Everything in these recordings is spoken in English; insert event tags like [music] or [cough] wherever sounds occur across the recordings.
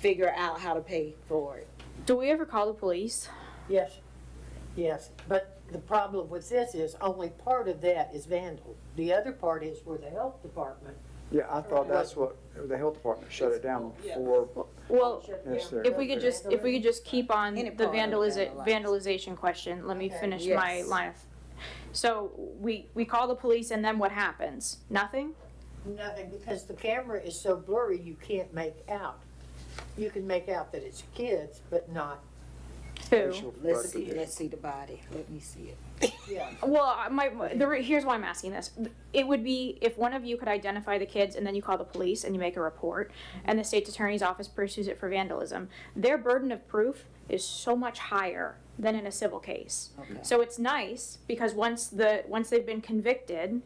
figure out how to pay for it. Do we ever call the police? Yes, yes, but the problem with this is only part of that is vandal. The other part is where the health department Yeah, I thought that's what, the health department shut it down before, Well, shut down. yes, sir. Oh, if we could just, if we could just keep on Oh, Any the part of vandaliza- vandalize. vandalization question, let me Okay, finish my yes. line of. So we, we call the police and then what happens? Nothing? Nothing, because the camera is so blurry, you can't make out. You can make out that it's kids, but not, Who? Let's see, let's see the body, let me see it. yeah. Well, I- my, the, re- here's why I'm asking this. It would be if one of you could identify the kids and then you call the police and you make a report Mm-hmm. and the state's attorney's office pursues it for vandalism, their burden of proof is so much higher than in a civil case. Okay. So it's nice because once the, once they've been convicted,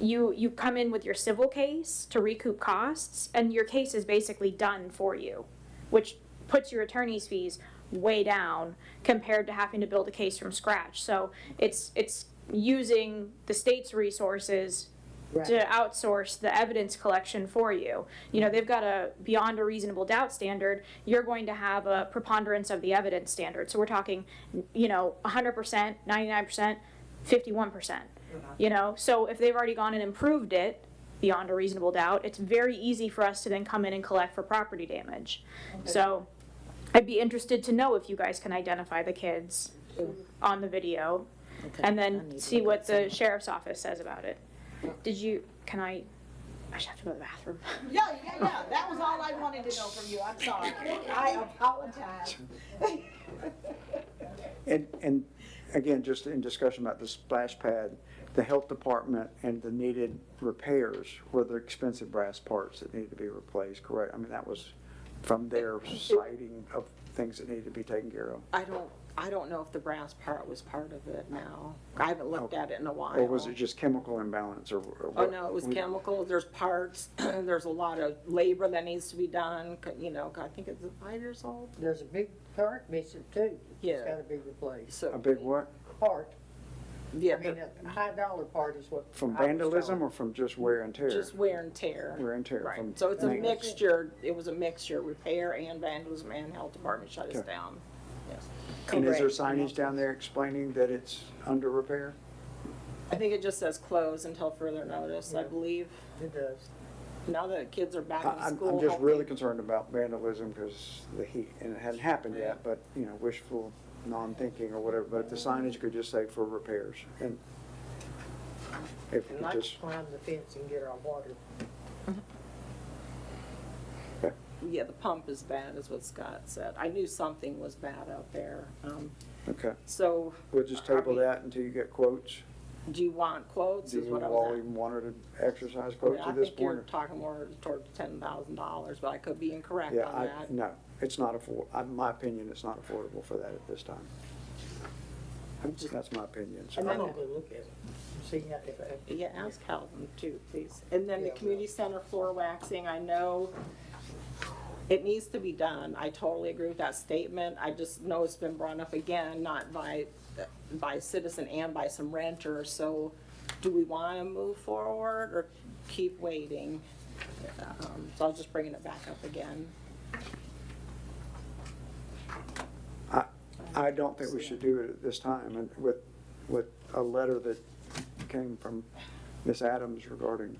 you, you come in with your civil case to recoup costs and your case is basically done for you, which puts your attorney's fees way down compared to having to build a case from scratch. So it's, it's using the state's resources to outsource the evidence collection for you. You know, they've got a beyond a reasonable doubt standard, you're going to have a preponderance of the evidence standard. So we're talking, you know, 100%, 99%, 51%. You know, so if they've already gone and improved it beyond a reasonable doubt, it's very easy for us to then come in and collect for property damage. So I'd be interested to know if you guys can identify the kids on the video and then see what the sheriff's office says about it. Did you, can I, I should have to go to the bathroom. [laughs] Yeah, yeah, yeah, that was all I wanted to know from you, I'm sorry, I apologize. And, and again, just in discussion about the splash pad, the health department and the needed repairs were the expensive brass parts that needed to be replaced, correct? I mean, that was from their citing of things that needed to be taken care of. I don't, I don't know if the brass part was part of it now, I haven't looked at it in a while. Oh. Or was it just chemical imbalance or? or Oh, what? no, it was We- chemicals, there's parts, [clears throat] there's a lot of labor that needs to be done, c- you know, I think it's five years old, There's a big part missing too. Yeah. It's gotta be replaced. A so, big what? Part, yeah, I mean, a high dollar part is what. From I was vandalism told. or from just wear and tear? just wear and tear. Wear and tear from Right, so it's a maintenance. mixture, it was a mixture, repair and vandalism and health department shut us Okay. down, yes. And is there Correct. signage down there explaining that it's under repair? I think it just says close until further notice, I believe. It does. Now that kids are back I- in I'm, school. I'm just really hopefully- concerned about vandalism because the heat, and it hadn't happened yet, but, you know, wishful, non-thinking or whatever, but if the signage could just say for repairs and if We we like just, to climb the fence and get our water. Yeah, the pump is bad, is what Scott said. I knew something was bad out there. Um, [laughs] okay, So we'll just Are table we- that until you get quotes. do you want quotes Do is you what I all was even want her to exercise asking. quotes I at this think you're point? talking more toward ten thousand dollars, but I could be incorrect Yeah, on I, that. no, it's not afford, in my opinion, it's not affordable for that at this time. That's my opinion, so. I'm gonna go look at it, and see how, if, I- Yeah, ask Calvin too, please. And then the Yeah, I will. community center floor waxing, I know it needs to be done. I totally agree with that statement. I just know it's been brought up again, not by, by citizen and by some renters. So do we want to move forward or keep waiting? Um, So I was just bringing it back up again. I, I don't think we should do it at this time, and with, with a letter that came from Ms. Adams regarding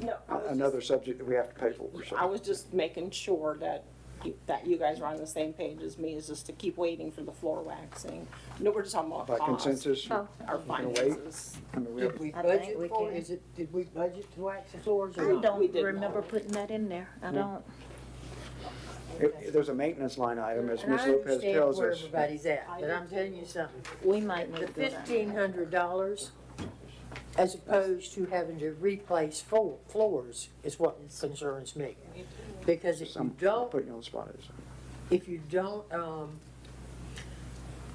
No, I was another subject that we have to pay for, just, I so. was just making sure that, you- that you guys are on the same page as me, is just to keep waiting for the floor waxing. No, we're just talking about By cost. consensus, Oh. our wait? finances. I mean, we have- did we I think budget we for, can. is it, did we budget to wax the floors or I not? We don't did remember not. putting that in there. I don't. it- there's a maintenance line item, as And Ms. I Lopez understand tells where us. everybody's at, but I'm telling you something. We might The need to. do that. fifteen hundred dollars, as opposed to having to replace fo- floors, is what concerns me. Because if you I'm don't, putting you on the spot. it's- if you don't, um,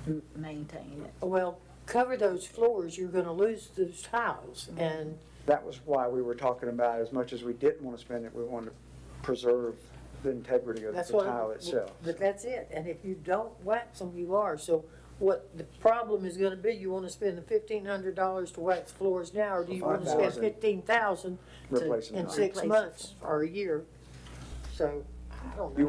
M- Maintain it. well, cover those floors, you're gonna lose those tiles. And That was why we were talking about, as much as we didn't want to spend it, we wanted to preserve the integrity of the that's what. tile itself. But that's it, and if you don't wax them, you are, so what the problem is gonna be, you wanna spend the fifteen hundred dollars to wax floors now, or do you wanna spend $5,000. fifteen thousand Replacing in the six Replace it. months or a year? So I don't know.